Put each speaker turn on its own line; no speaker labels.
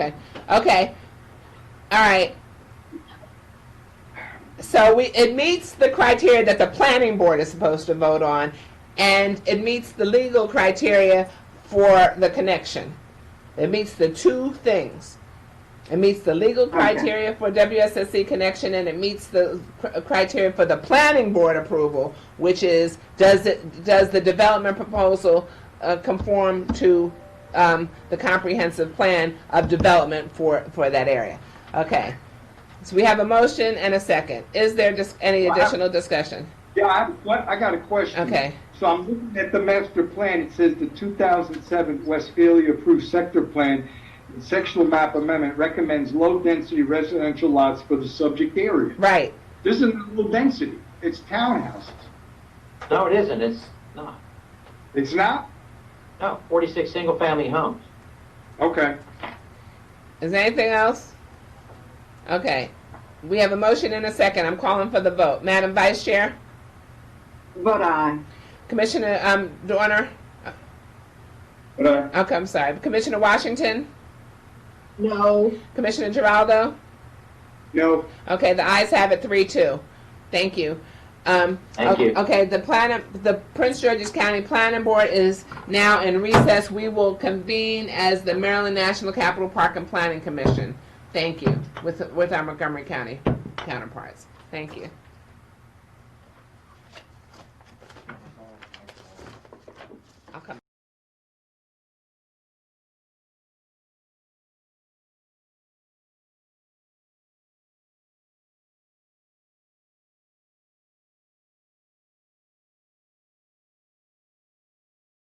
Okay, okay, all right. So we, it meets the criteria that the planning board is supposed to vote on, and it meets the legal criteria for the connection. It meets the two things. It meets the legal criteria for WSSC connection, and it meets the cr- uh, criteria for the planning board approval, which is, does it, does the development proposal uh, conform to um, the comprehensive plan of development for, for that area? Okay. So we have a motion and a second. Is there just any
Well, I-
additional discussion?
Yeah, I, what, I got a question.
Okay.
So I'm looking at the master plan, it says the 2007 Westphalia approved sector plan, sectional map amendment recommends low-density residential lots for the subject area.
Right.
This isn't low density, it's townhouses.
No, it isn't, it's not.
It's not?
No, 46 single-family homes.
Okay.
Is there anything else? Okay. We have a motion and a second. I'm calling for the vote. Madam Vice Chair,
Vote aye.
Commissioner um, Dorner,
But, uh,
okay, I'm sorry, Commissioner Washington,
No.
Commissioner Geraldo.
no,
Okay, the ayes have it, three, two. Thank you. Um,
Thank
o-
you.
Okay, the plan, the Prince George's County Planning Board is now in recess. We will convene as the Maryland National Capital Park and Planning Commission. Thank you, with, with our Montgomery County counterparts. Thank you.